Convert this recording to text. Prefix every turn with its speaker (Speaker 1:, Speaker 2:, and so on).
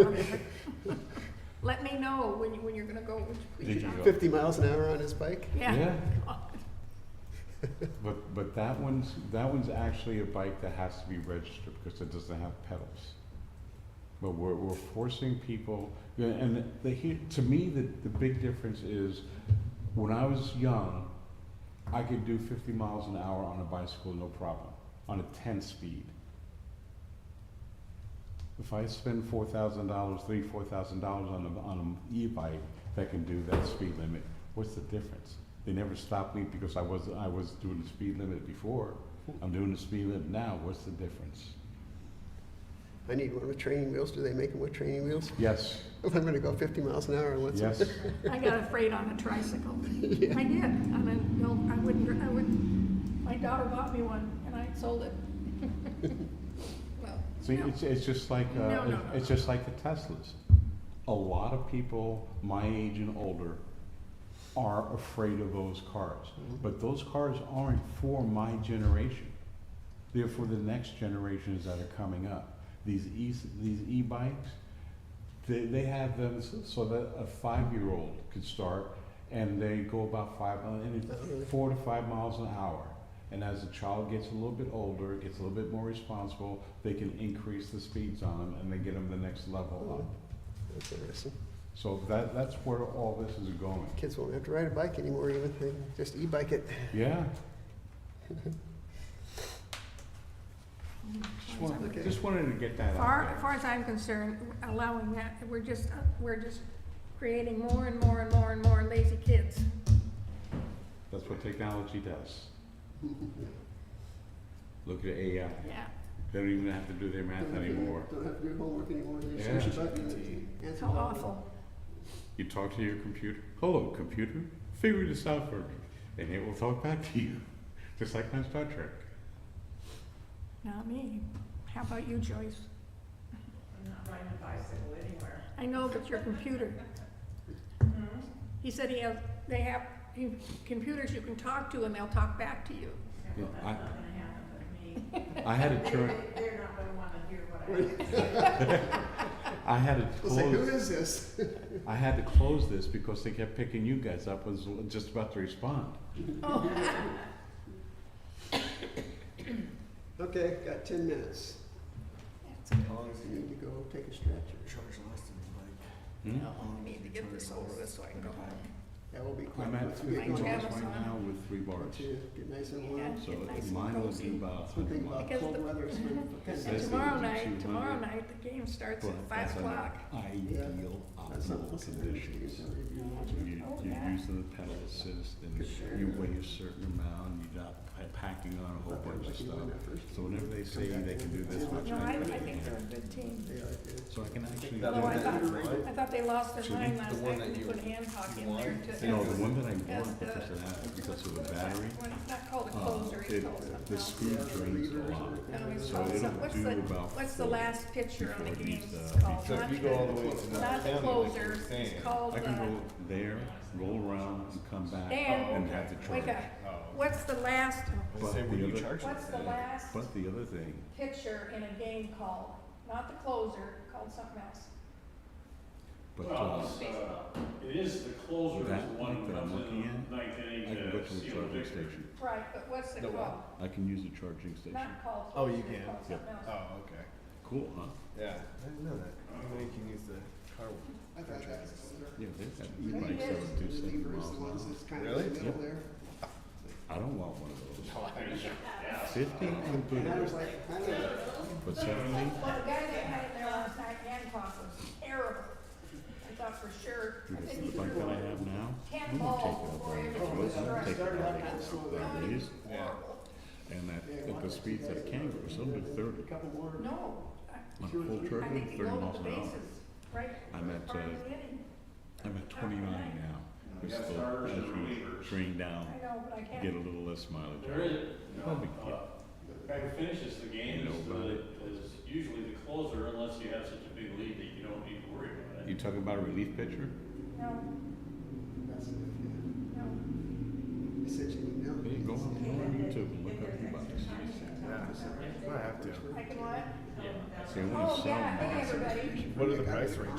Speaker 1: Let me know when you, when you're gonna go, would you please?
Speaker 2: Did you go?
Speaker 3: 50 miles an hour on his bike?
Speaker 1: Yeah.
Speaker 2: But, but that one's, that one's actually a bike that has to be registered because it doesn't have pedals. But we're, we're forcing people, yeah, and the, hu- to me, the, the big difference is, when I was young, I could do fifty miles an hour on a bicycle, no problem, on a ten speed. If I spend four thousand dollars, three, four thousand dollars on a, on a e-bike that can do that speed limit, what's the difference? They never stopped me because I was, I was doing the speed limit before, I'm doing the speed limit now, what's the difference?
Speaker 3: I need one with training wheels. Do they make them with training wheels?
Speaker 2: Yes,
Speaker 3: If I'm going to go 50 miles an hour, let's.
Speaker 2: yes,
Speaker 1: I got afraid on a tricycle. I did, and I, no, I wouldn't, dr- I wouldn't, my daughter bought me one, and I sold it. Well,
Speaker 2: see,
Speaker 1: no.
Speaker 2: it's, it's just like,
Speaker 1: No, no,
Speaker 2: uh,
Speaker 1: no,
Speaker 2: it's just like the Teslas. A lot of people my age and older are afraid of those cars,
Speaker 3: Mm,
Speaker 2: but those cars aren't for my generation. They're for the next generations that are coming up. These e, these e-bikes, they, they have them s- so that a five-year-old could start and they go about five, mi- and it's four to five miles an hour. And as the child gets a little bit older, gets a little bit more responsible, they can increase the speeds on them and they get them the next level up.
Speaker 3: That's interesting.
Speaker 2: So that, that's where all this is going.
Speaker 3: Kids won't have to ride a bike anymore, even. They can just e bike it.
Speaker 2: Yeah,
Speaker 1: Mm,
Speaker 2: just
Speaker 1: far as
Speaker 2: wanted,
Speaker 3: Okay.
Speaker 2: just wanted to get that
Speaker 1: I'm-
Speaker 2: out
Speaker 1: Far,
Speaker 2: there.
Speaker 1: far as I'm concerned, allowing that, we're just, uh, we're just creating more and more and more and more lazy kids.
Speaker 2: That's what technology does. Look at AI.
Speaker 1: Yeah,
Speaker 2: They don't even have to do their math anymore.
Speaker 3: Don't have to do homework anymore. They
Speaker 2: just Yeah. push a
Speaker 1: how awful.
Speaker 2: You talk to your computer, hello, computer, figure this out for me, and it will talk back to you, just like on Star Trek.
Speaker 1: Not me. How about you, Joyce?
Speaker 4: I'm not riding a bicycle anywhere.
Speaker 1: I know, but your computer. He said he has, they have he- computers you can talk to and they'll talk back to you.
Speaker 2: Yeah,
Speaker 4: Well, that's
Speaker 2: I-
Speaker 4: not gonna happen with me.
Speaker 2: I had to turn,
Speaker 4: They- They're not gonna wanna hear what I have to say.
Speaker 2: I had to
Speaker 3: They'll say, who
Speaker 2: close,
Speaker 3: is this?
Speaker 2: I had to close this because they kept picking you guys up, was just about to respond.
Speaker 3: Okay, got 10 minutes.
Speaker 1: That's okay.
Speaker 3: How long does it need to go take a stretcher?
Speaker 2: Hmm?
Speaker 1: I need to get this over with so I can go home.
Speaker 3: That will be quick.
Speaker 2: I'm at
Speaker 3: Once we get
Speaker 2: fifty
Speaker 1: Mine
Speaker 2: miles
Speaker 3: going.
Speaker 1: got
Speaker 2: right
Speaker 1: some.
Speaker 2: now with three bars,
Speaker 3: Once you get nice and warm.
Speaker 1: Yeah.
Speaker 2: so
Speaker 1: Get nice and
Speaker 2: mine will
Speaker 1: cozy.
Speaker 2: do about
Speaker 3: That's
Speaker 2: hundred
Speaker 3: one thing
Speaker 2: miles.
Speaker 3: about
Speaker 1: Because
Speaker 3: cold
Speaker 1: the-
Speaker 3: weather is when
Speaker 2: That's
Speaker 1: And
Speaker 2: the-
Speaker 1: tomorrow
Speaker 2: the
Speaker 1: night,
Speaker 2: 200.
Speaker 1: tomorrow night, the game starts at
Speaker 2: Well,
Speaker 1: five
Speaker 2: that's an
Speaker 1: o'clock.
Speaker 2: Ideal
Speaker 3: that's not
Speaker 2: optimal
Speaker 3: listening to
Speaker 2: conditions.
Speaker 3: you.
Speaker 2: You,
Speaker 1: Oh,
Speaker 2: you're
Speaker 1: yeah.
Speaker 2: using the pedal assist and you weigh a certain amount, you're not pa- packing on a whole bunch of stuff. So whenever they say they can do this much,
Speaker 1: No, I,
Speaker 2: I
Speaker 1: I
Speaker 2: really
Speaker 1: think they're
Speaker 2: can't.
Speaker 1: a good team.
Speaker 3: They like it.
Speaker 2: So I can actually,
Speaker 5: That
Speaker 1: Although
Speaker 5: one
Speaker 1: I
Speaker 5: that
Speaker 1: thought,
Speaker 5: you won?
Speaker 1: I thought they lost
Speaker 2: Should
Speaker 1: their
Speaker 2: we-
Speaker 1: mind
Speaker 5: the
Speaker 1: last
Speaker 5: one
Speaker 1: night when
Speaker 5: that
Speaker 1: they
Speaker 5: you
Speaker 1: put Hancock in
Speaker 5: won?
Speaker 1: there
Speaker 2: you
Speaker 1: to.
Speaker 2: know, the one that I
Speaker 1: as
Speaker 2: bought
Speaker 1: the-
Speaker 2: because of that, because of the battery,
Speaker 1: When it's not called a
Speaker 2: uh,
Speaker 1: closer, it's called
Speaker 2: it,
Speaker 1: something
Speaker 2: the
Speaker 1: else.
Speaker 2: speed drains a lot.
Speaker 1: That always
Speaker 2: So
Speaker 1: calls
Speaker 2: it'll
Speaker 1: some- what's
Speaker 2: do
Speaker 1: the-
Speaker 2: about
Speaker 1: What's the
Speaker 2: four
Speaker 1: last picture on the game?
Speaker 2: before it needs
Speaker 1: It's
Speaker 2: to
Speaker 1: called.
Speaker 5: So if
Speaker 1: not
Speaker 5: you go all
Speaker 1: the-
Speaker 5: the way to
Speaker 1: Not the
Speaker 5: North County, like you
Speaker 1: closer,
Speaker 5: were saying.
Speaker 1: it's called,
Speaker 2: I can
Speaker 1: uh,
Speaker 2: go there, roll around and come back
Speaker 1: Dan,
Speaker 2: and have to charge.
Speaker 1: wake up.
Speaker 3: Oh.
Speaker 1: What's the last,
Speaker 2: But
Speaker 5: Say,
Speaker 2: the
Speaker 5: were you
Speaker 2: other- Oh,
Speaker 5: charging
Speaker 1: what's the
Speaker 5: that?
Speaker 1: last
Speaker 2: But the other thing,
Speaker 1: picture in a game called? Not the closer, called something else.
Speaker 2: but, uh,
Speaker 6: Well, it's, uh, it is the closer is the
Speaker 2: That
Speaker 6: one
Speaker 2: that
Speaker 6: that
Speaker 2: I'm
Speaker 6: comes
Speaker 2: looking
Speaker 6: in
Speaker 2: at,
Speaker 6: ninth
Speaker 2: I
Speaker 6: inning
Speaker 2: can go
Speaker 6: to
Speaker 2: to the
Speaker 6: seal the
Speaker 2: charging
Speaker 6: victory.
Speaker 2: station.
Speaker 1: Right, but what's it
Speaker 5: The what?
Speaker 1: called?
Speaker 2: I can use the charging station.
Speaker 1: Not called
Speaker 5: Oh,
Speaker 1: closer,
Speaker 5: you can.
Speaker 1: called something else.
Speaker 5: Oh, okay.
Speaker 2: Cool, huh?
Speaker 5: Yeah. I didn't know that.
Speaker 2: Oh.
Speaker 5: You know you can use the car one.
Speaker 3: I thought that was older.
Speaker 2: Yeah, they've got
Speaker 3: I think
Speaker 2: e-bikes that
Speaker 3: it's
Speaker 2: would do
Speaker 3: the
Speaker 2: seven
Speaker 3: levers,
Speaker 2: miles
Speaker 3: the
Speaker 2: an
Speaker 3: ones
Speaker 2: hour.
Speaker 3: that's kind of in the
Speaker 5: Really?
Speaker 3: middle there.
Speaker 2: I don't want one of
Speaker 6: Oh, Yeah.
Speaker 2: those. Fifty and
Speaker 3: And I was
Speaker 2: boomers,
Speaker 3: like, kind of,
Speaker 2: but seventy,
Speaker 1: Well, the guy that had it there last night, Hancock, was terrible. I thought for sure, I
Speaker 2: because
Speaker 1: think he
Speaker 2: the bike that
Speaker 1: threw
Speaker 2: I have now,
Speaker 1: ten
Speaker 2: we won't take
Speaker 1: balls
Speaker 2: it
Speaker 1: before
Speaker 2: out
Speaker 1: every
Speaker 2: there.
Speaker 1: one
Speaker 2: We'll
Speaker 1: was struck.
Speaker 2: take it
Speaker 3: started
Speaker 2: out
Speaker 3: out
Speaker 2: there.
Speaker 3: kind of slow.
Speaker 2: That
Speaker 3: down.
Speaker 2: is,
Speaker 5: Yeah.
Speaker 2: and at, at the speeds that it can go, some do
Speaker 3: A
Speaker 2: thirty.
Speaker 3: couple more.
Speaker 1: No, I,
Speaker 2: On a full
Speaker 1: I
Speaker 2: turbo,
Speaker 1: think he
Speaker 2: thirty miles
Speaker 1: loaded the
Speaker 2: an hour.
Speaker 1: bases, right?
Speaker 2: I'm at,
Speaker 1: Part of
Speaker 2: uh,
Speaker 1: the inning.
Speaker 2: I'm at twenty-nine now.
Speaker 6: You
Speaker 2: We're
Speaker 6: got
Speaker 2: still,
Speaker 6: starters
Speaker 2: as
Speaker 6: and
Speaker 2: we
Speaker 6: relievers.
Speaker 2: train down,
Speaker 1: I know, but I
Speaker 2: get
Speaker 1: can't,
Speaker 2: a little less mileage.
Speaker 6: There is, you
Speaker 2: No big
Speaker 6: know, uh, who finishes the
Speaker 2: You
Speaker 6: game is
Speaker 2: know about
Speaker 6: the, is usually the closer unless you have such a big lead that you don't need to worry about
Speaker 2: You
Speaker 6: it.
Speaker 2: talking about a relief pitcher?
Speaker 1: no,
Speaker 3: That's it, yeah.
Speaker 1: no.
Speaker 3: I sent you an email.
Speaker 2: Go on, go on YouTube and look up e-bikes.
Speaker 5: Yeah. I have to.
Speaker 1: I can what?
Speaker 7: them down.
Speaker 8: They wanna
Speaker 2: Oh,
Speaker 8: sell
Speaker 2: yeah,
Speaker 8: them.
Speaker 2: hey, everybody.
Speaker 1: What are the price ranges?